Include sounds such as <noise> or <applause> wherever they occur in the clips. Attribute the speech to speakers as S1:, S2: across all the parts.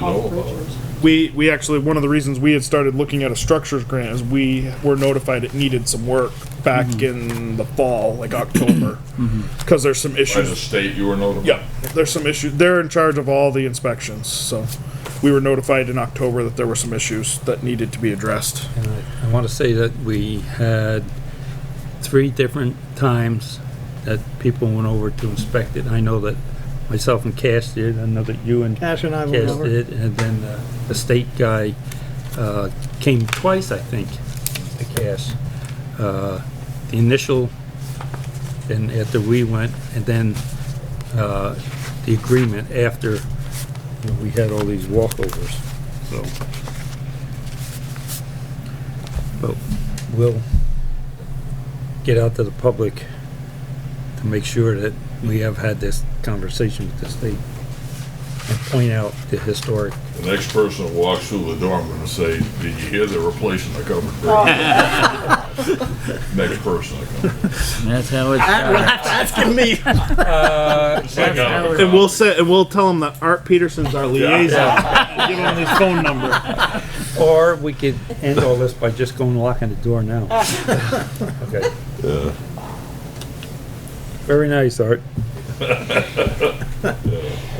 S1: know about it.
S2: We, we actually, one of the reasons we had started looking at a structures grant is we were notified it needed some work back in the fall, like <clears throat> October. Because there's some
S1: By the
S2: issues.
S1: state, you were notified?
S2: Yeah, there's some issues. They're in charge of all the inspections, so we were notified in October that there were some issues that needed to be addressed.
S3: And I- I want to say that we had three different times that people went over to inspect it. I know that myself and Cash did, I know that you and
S4: Ash and I went
S3: Cash
S4: over.
S3: did, and then uh, the state guy uh, came twice, I think, to Cash. Uh, The initial, and after we went, and then uh, the agreement after you know, we had all these walkovers, so. But we'll get out to the public to make sure that we have had this conversation with the state and point out the historic.
S1: The next person that walks through the door, I'm gonna say, did you hear they're replacing the covered bridge? Next person that comes.
S5: That's how it's
S2: Asking me.
S1: Like, uh,
S2: And we'll say, and we'll tell them that Art Peterson's our liaison. <laughs> Give him his phone number.
S3: Or we could end all this by just going and locking the door now. Okay.
S1: Yeah.
S3: Very nice, Art. <laughs> I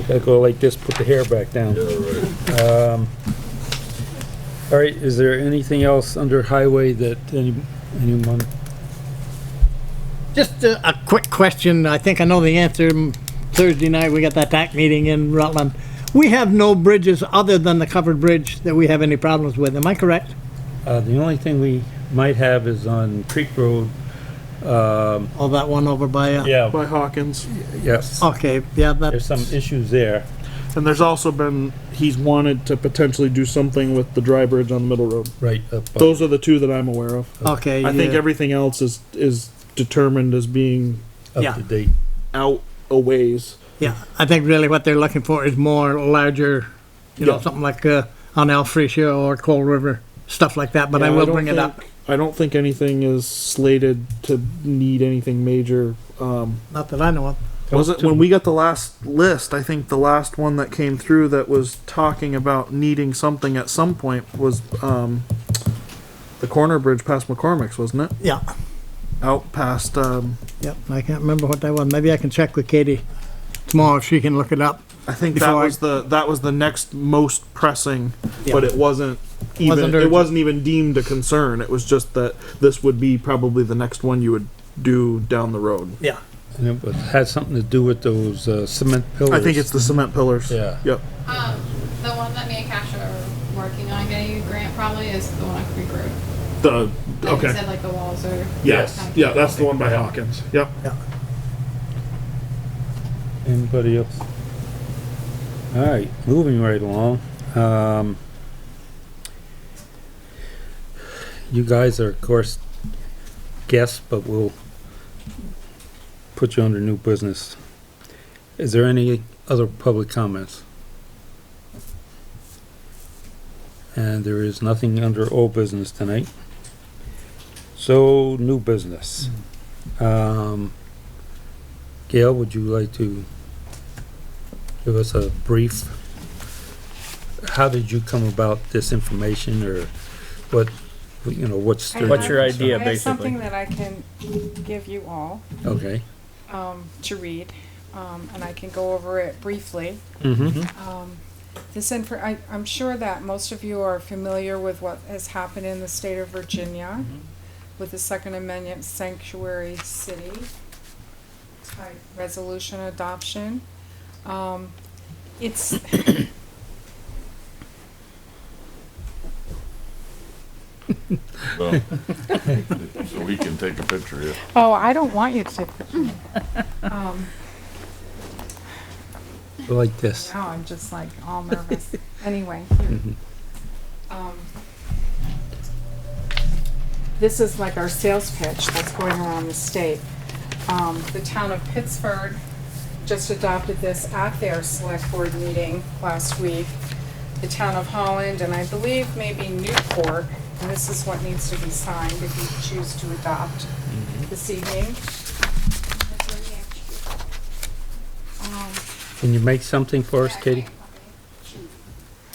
S3: gotta go like this, put the hair back down. Um,
S1: Yeah, right.
S3: All right, is there anything else under highway that any, anyone?
S4: Just a, a quick question. I think I know the answer. Thursday night, we got that TAC meeting in Rutland. We have no bridges other than the covered bridge that we have any problems with. Am I correct?
S3: Uh, the only thing we might have is on Creek Road. Um,
S4: Oh, that one over by, uh,
S3: yeah,
S2: By Hawkins.
S3: yes.
S4: okay, yeah,
S3: There's
S4: that's,
S3: some issues there.
S2: And there's also been, he's wanted to potentially do something with the dry bridge on the middle road.
S3: Right.
S2: Those are the two that I'm aware of.
S4: okay,
S2: I think
S4: yeah,
S2: everything else is, is determined as being
S3: Up
S4: yeah.
S3: to date.
S2: out a ways.
S4: yeah. I think really what they're looking for is more larger, you know,
S2: Yeah.
S4: something like, uh, on Alphresia or Coal River, stuff like that, but I
S2: Yeah,
S4: will
S2: don't
S4: bring it up.
S2: think- I don't think anything is slated to need anything major. Um,
S4: Not that I know of.
S2: was it when we got the last list? I think the last one that came through that was talking about needing something at some point was um, the corner bridge past McCormick's, wasn't it?
S4: Yeah,
S2: Out past. Um,
S4: yep. I can't remember what that was. Maybe I can check with Katie tomorrow if she can look it up.
S2: I think that
S4: Before I-
S2: was the that was the next most pressing,
S4: Yeah.
S2: but it wasn't even
S4: Wasn't
S2: it
S4: urgent.
S2: wasn't even deemed a concern. It was just that this would be probably the next one you would do down the road.
S4: Yeah.
S3: And it was- had something to do with those uh, cement pillars.
S2: I think it's the cement pillars.
S3: Yeah.
S2: Yep.
S6: Um, the one that me and Cash are working on getting a grant probably is the one on Creek Road.
S2: The
S6: Like you said, like the walls are. kind of-
S2: That's the one by Hawkins. Yep.
S3: Anybody else? All right, moving right along. Um, you guys are, of course, guests, but we'll put you under new business. Is there any other public comments? And there is nothing under old business tonight. So, new business. Um, Gail, would you like to give us a brief? How did you come about this information or what, you know, what's?
S7: I
S5: What's your
S7: have-
S5: idea,
S7: I have something
S5: basically?
S7: that I can give you all
S3: Okay.
S7: um, to read, um, and I can go over it briefly.
S3: Mm-hmm.
S7: Um, This info, I, I'm sure that most of you are familiar with what has happened in the state of Virginia
S5: Mm-hmm.
S7: with the Second Amendment sanctuary city type resolution adoption. Um, It's.
S1: Well, <laughs> So we can take a picture here.
S7: Oh, I don't want you to take pictures. <laughs> Um,
S3: Like this.
S7: Now I'm just like all nervous. anyway, here.
S3: Mhm.
S7: Um, this is like our sales pitch that's going around the state. Um, the town of Pittsburgh just adopted this at their select board meeting last week. The town of Holland and I believe maybe Newport, and this is what needs to be signed if you choose to adopt this evening. Um,
S3: Can you make something for us, Katie?